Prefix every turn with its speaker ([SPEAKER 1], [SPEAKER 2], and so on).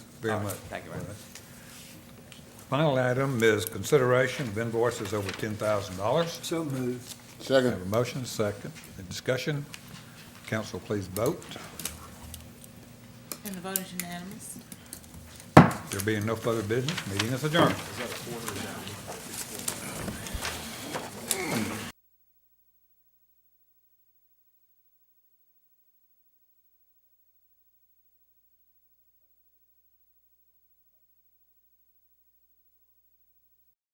[SPEAKER 1] very
[SPEAKER 2] All right.
[SPEAKER 1] much.
[SPEAKER 2] Thank you, Mayor.
[SPEAKER 1] Final item is consideration of invoices over $10,000.
[SPEAKER 3] So moved.
[SPEAKER 1] Have
[SPEAKER 4] Second.
[SPEAKER 1] a motion, second. Any discussion? Council, please vote.
[SPEAKER 5] And the vote is unanimous.
[SPEAKER 1] There being no further business, meeting is adjourned.